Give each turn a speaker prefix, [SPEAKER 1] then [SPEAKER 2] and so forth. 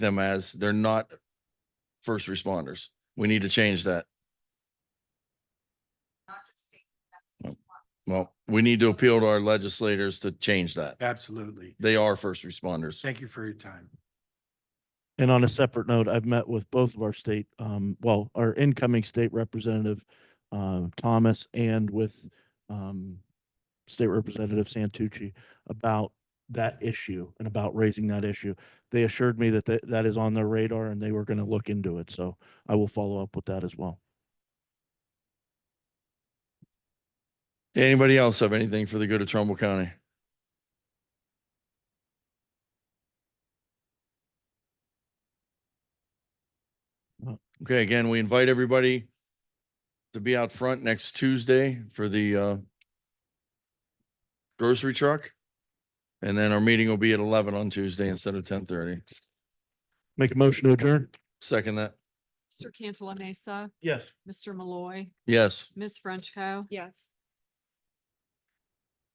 [SPEAKER 1] them as they're not first responders. We need to change that. Well, we need to appeal to our legislators to change that.
[SPEAKER 2] Absolutely.
[SPEAKER 1] They are first responders.
[SPEAKER 2] Thank you for your time.
[SPEAKER 3] And on a separate note, I've met with both of our state, um, well, our incoming state representative, um, Thomas and with, um, State Representative Santucci about that issue and about raising that issue. They assured me that that, that is on their radar and they were going to look into it. So I will follow up with that as well.
[SPEAKER 1] Anybody else have anything for the good of Trumbull County?
[SPEAKER 3] No.
[SPEAKER 1] Okay, again, we invite everybody to be out front next Tuesday for the uh grocery truck. And then our meeting will be at eleven on Tuesday instead of ten thirty.
[SPEAKER 3] Make a motion to adjourn?
[SPEAKER 1] Second that,
[SPEAKER 4] Mr. Cantala Mesa,
[SPEAKER 3] Yes.
[SPEAKER 4] Mr. Malloy,
[SPEAKER 1] yes.
[SPEAKER 4] Ms. Frenchco.
[SPEAKER 5] Yes.